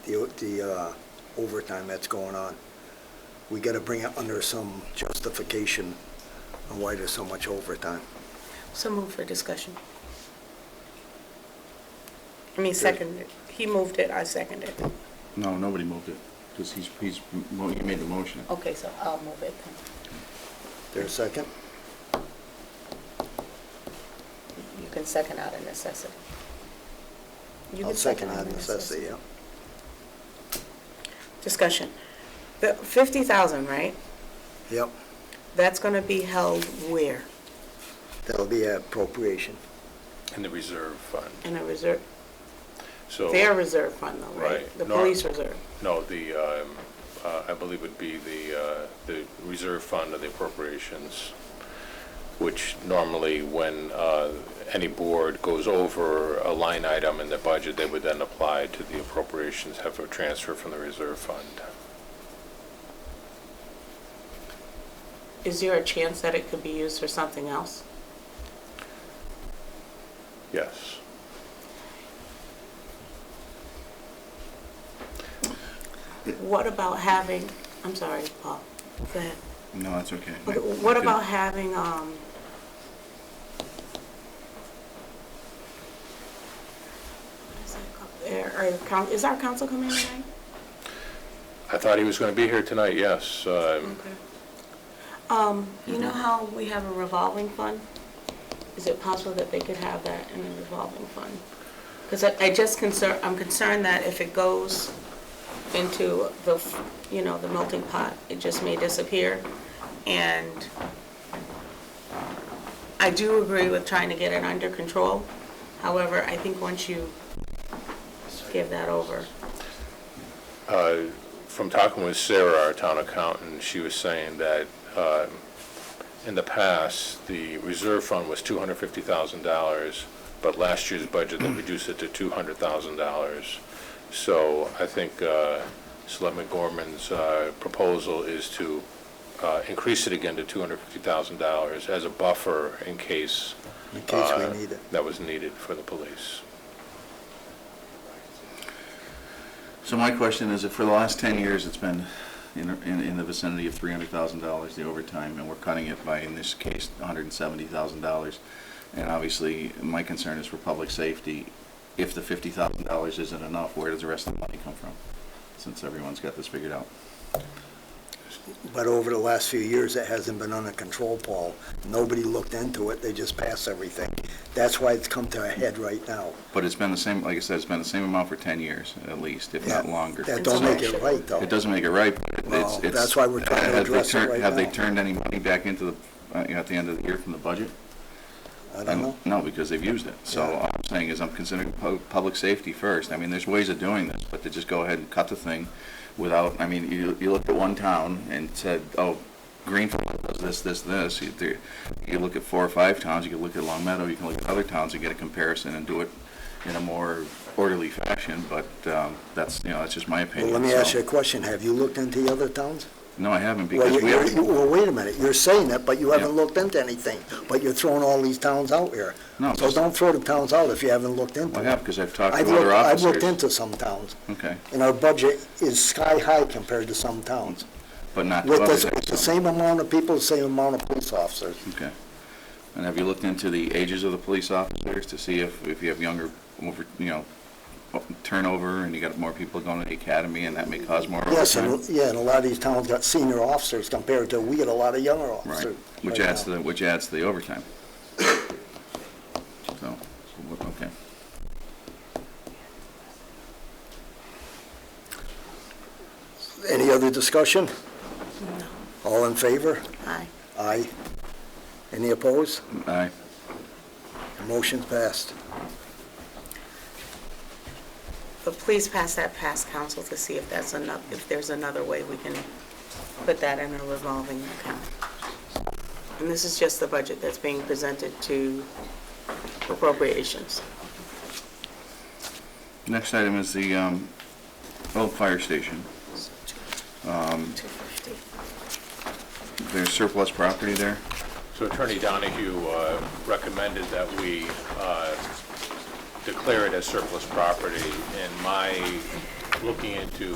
the, the uh, overtime that's going on. We got to bring it under some justification on why there's so much overtime. So move for discussion. I mean, second, it. he moved it, I seconded it. No, nobody moved it, because he's, he's, well, he made the motion. Okay, so I'll move it then. There a second? You can second out of necessity. You I'll can second out that of necessity, yeah. Discussion. The 50,000, right? Yep, That's going to be held where? that'll be appropriation. in the reserve fund. In a reserve, So, their reserve fund though, right? Right. The No. police reserve. no, the, um, uh, I believe would be the, uh, the reserve fund or the appropriations, which normally when uh, any board goes over a line item in the budget, they would then apply to the appropriations, have a transfer from the reserve fund. Is there a chance that it could be used for something else? Yes. What about having, I'm sorry, Paul, go ahead. No, that's okay. Okay, What about having, um, what is that called? Our- our coun- is our council coming tonight? I thought he was going to be here tonight, yes. Um, Okay. Um, you know how we have a revolving fund? Is it possible that they could have that in a revolving fund? Because I, I just concern, I'm concerned that if it goes into the, f- you know, the melting pot, it just may disappear. And I do agree with trying to get it under control. However, I think once you give that over, uh, From talking with Sarah, our town accountant, she was saying that um, in the past, the reserve fund was $250,000, but last year's budget, they reduced it to $200,000. So I think uh, Selectman Gorman's uh, proposal is to uh, increase it again to $250,000 as a buffer in case. In case we uh, need it. That was needed for the police. So my question is, if for the last 10 years, it's been in, in in the vicinity of $300,000, the overtime, and we're cutting it by, in this case, $170,000, and obviously, my concern is for public safety, if the $50,000 isn't enough, where does the rest of the money come from? Since everyone's got this figured out. But over the last few years, it hasn't been under control, Paul. Nobody looked into it, they just passed everything. That's why it's come to a head right now. But it's been the same, like I said, it's been the same amount for 10 years, at least, if not That- longer. That don't make it right, though. It doesn't make it right, but it's- Well, it's... that's why we're trying to have they address it turned- right Have they now. turned any money back into the, uh, you know, at the end of the year from the budget? I don't know. No, because they've used it. So Yeah. all I'm saying is I'm considering pu- public safety first. I mean, there's ways of doing this, but to just go ahead and cut the thing without, I mean, you, you looked at one town and said, oh, Greenfield does this, this, this. You do- you look at four or five towns, you can look at Long Meadow, you can look at other towns and get a comparison and do it in a more orderly fashion, but um, that's, you know, that's just my Well, opinion. let me ask So- you a question. Have you looked into the other towns? No, I haven't, Well, because you- we haven't... you- well, wait a minute, you're saying that, but you haven't Yeah. looked into anything, but you're throwing all these towns out here. No, So just- don't throw the towns out if you haven't looked into Well, I them. have, because I've talked I've to looked, other I've officers. looked into some towns, Okay, and our budget is sky-high compared to some towns. but not to With others. the, with the so- same amount of people, the same amount of police officers. Okay. And have you looked into the ages of the police officers to see if, if you have younger, over, you know, turnover and you got more people going to the academy and that may cause more Yes, overtime? and, yeah, and a lot of these towns got senior officers compared to, we get a lot of younger Right, officers. which right adds to now. the, which adds to the overtime. So, wh- okay. Any other discussion? All in favor? aye. Aye. Any opposed? Aye. Motion passed. But please pass that past council to see if that's enough, if there's another way we can put that in a revolving account. And this is just the budget that's being presented to appropriations. Next item is the, um, old fire station. Two fifty. There's surplus property there. So Attorney Donahue uh, recommended that we uh, declare it as surplus property, and my looking into